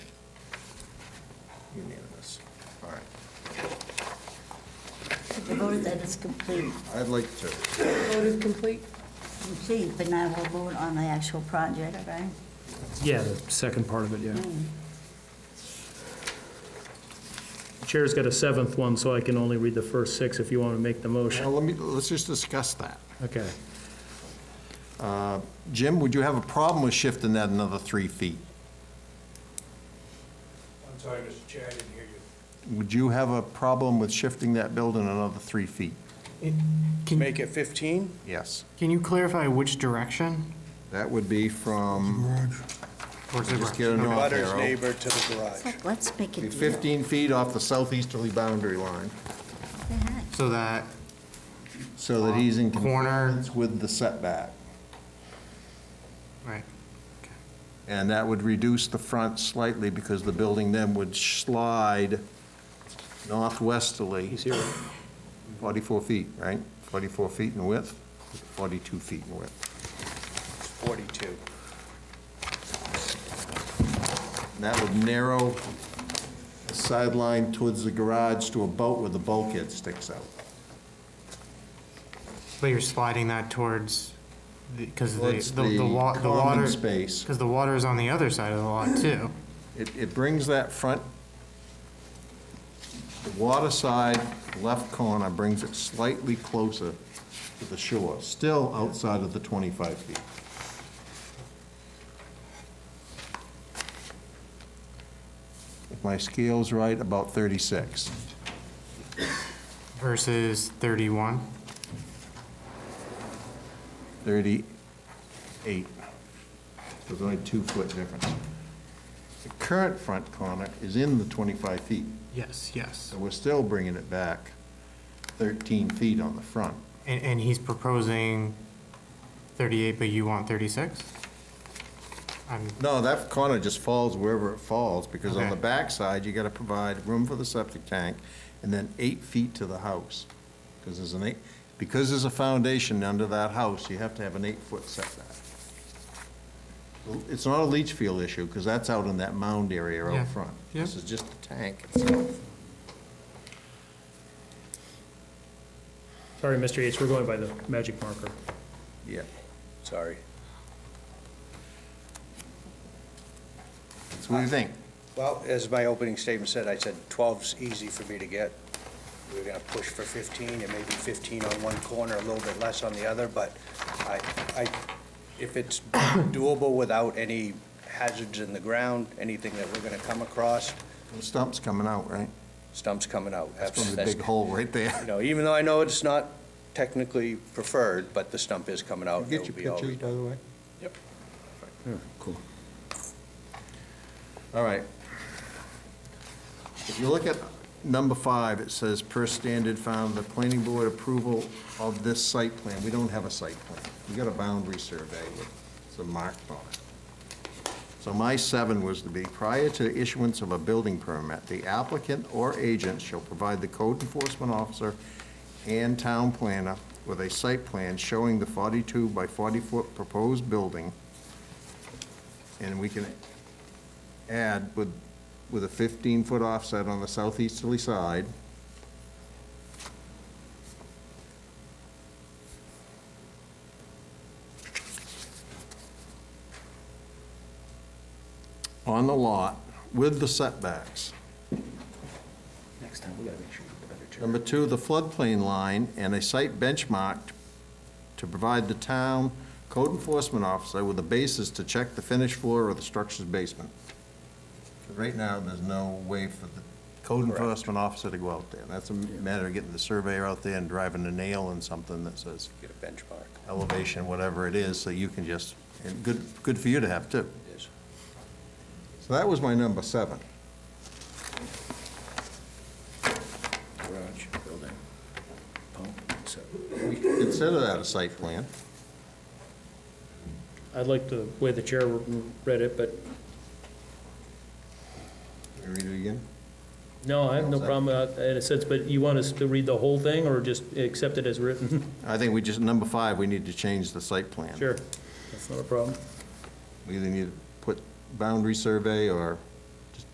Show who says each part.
Speaker 1: Unanimous. All right,
Speaker 2: The vote that is complete,
Speaker 1: I'd like to,
Speaker 3: Vote is complete.
Speaker 2: complete, but now we'll vote on the actual project, right?
Speaker 4: Yeah, the second part of it, yeah. Chair's got a seventh one, so I can only read the first six if you want to make the
Speaker 1: now
Speaker 4: motion.
Speaker 1: let me, let's just discuss that.
Speaker 4: Okay.
Speaker 1: Jim, would you have a problem with shifting that another three feet?
Speaker 5: I'm sorry, Mr. Chair, I didn't hear you.
Speaker 1: Would you have a problem with shifting that building another three feet?
Speaker 6: Can,
Speaker 5: Make it 15?
Speaker 1: Yes.
Speaker 6: can you clarify which direction?
Speaker 1: That would be from,
Speaker 6: Towards the
Speaker 1: just
Speaker 6: garage.
Speaker 1: get a north
Speaker 5: Butter's
Speaker 1: arrow.
Speaker 5: neighbor to the
Speaker 2: It's
Speaker 5: garage.
Speaker 2: like, let's make
Speaker 1: Be
Speaker 2: it.
Speaker 1: 15 feet off the southeasterly boundary line,
Speaker 6: So that,
Speaker 1: so that he's in
Speaker 6: Corner.
Speaker 1: compliance with the setback.
Speaker 6: right,
Speaker 1: And that would reduce the front slightly because the building then would slide northwesterly.
Speaker 4: He's here.
Speaker 1: 44 feet, right? 44 feet in width, 42 feet in width.
Speaker 5: 42.
Speaker 1: And that would narrow the sideline towards the garage to a boat where the bulkhead sticks out.
Speaker 6: but you're sliding that towards, because
Speaker 1: Towards
Speaker 6: the, the
Speaker 1: the
Speaker 6: wa, the
Speaker 1: common
Speaker 6: water.
Speaker 1: space.
Speaker 6: Because the water is on the other side of the lot too.
Speaker 1: It, it brings that front water side left corner, brings it slightly closer to the shore, still outside of the 25 feet. If my scale's right, about 36.
Speaker 6: Versus thirty-one,
Speaker 1: 38. So There's only two-foot difference. The current front corner is in the 25 feet,
Speaker 6: yes, yes.
Speaker 1: so we're still bringing it back 13 feet on the front.
Speaker 6: And, and he's proposing thirty-eight, but you want thirty-six? I'm,
Speaker 1: No, that corner just falls wherever it falls, because on the
Speaker 6: Okay.
Speaker 1: backside, you got to provide room for the septic tank, and then eight feet to the house, because there's an eight, because there's a foundation under that house, you have to have an eight-foot setback. Well, It's not a leach field issue, because that's out in that mound area
Speaker 6: Yeah.
Speaker 1: out front.
Speaker 6: Yeah.
Speaker 1: This is just the tank itself.
Speaker 4: Sorry, Mr. Yates, we're going by the magic marker.
Speaker 1: Yeah,
Speaker 5: Sorry.
Speaker 1: so what do you think?
Speaker 5: Well, as my opening statement said, I said 12's easy for me to get. We were going to push for 15, and maybe 15 on one corner, a little bit less on the other, but I, I, if it's doable without any hazards in the ground, anything that we're going to come across,
Speaker 1: The Stump's coming out, right?
Speaker 5: stump's coming out.
Speaker 1: That's going to be a big hole right
Speaker 5: You
Speaker 1: there.
Speaker 5: know, even though I know it's not technically preferred, but the stump is coming out.
Speaker 1: Get
Speaker 5: It'll
Speaker 1: your
Speaker 5: be all-
Speaker 1: pictures, by the way.
Speaker 5: Yep.
Speaker 1: Cool. All right. If you look at number five, it says, per standard found, the planning board approval of this site plan. We don't have a site plan. We got a boundary survey with some marked on it. So my seven was to be, prior to issuance of a building permit, the applicant or agent shall provide the code enforcement officer and town planner with a site plan showing the 42 by 40-foot proposed building, and we can add with, with a 15-foot offset on the southeasterly side. On the lot with the setbacks.
Speaker 5: Next time, we gotta make sure you better
Speaker 1: Number two, the floodplain line and a site benchmark to provide the town code enforcement officer with a basis to check the finished floor of the structure's basement. Right now, there's no way for the code enforcement officer to go out there. That's a matter of getting the surveyor out there and driving a nail in something that says
Speaker 5: Get a benchmark,
Speaker 1: elevation, whatever it is, so you can just, and good, good for you to have too.
Speaker 5: it is.
Speaker 1: So that was my number seven.
Speaker 5: Garage, building, pump, so.
Speaker 1: We can Consider that a site plan.
Speaker 4: I'd like the way the chair read it, but
Speaker 1: Can you Read it again?
Speaker 4: no, I have no problem with that in a sense, but you want us to read the whole thing or just accept it as written?
Speaker 1: I think we just, number five, we need to change the site plan.
Speaker 4: Sure, that's not a problem.
Speaker 1: We either need to put boundary survey or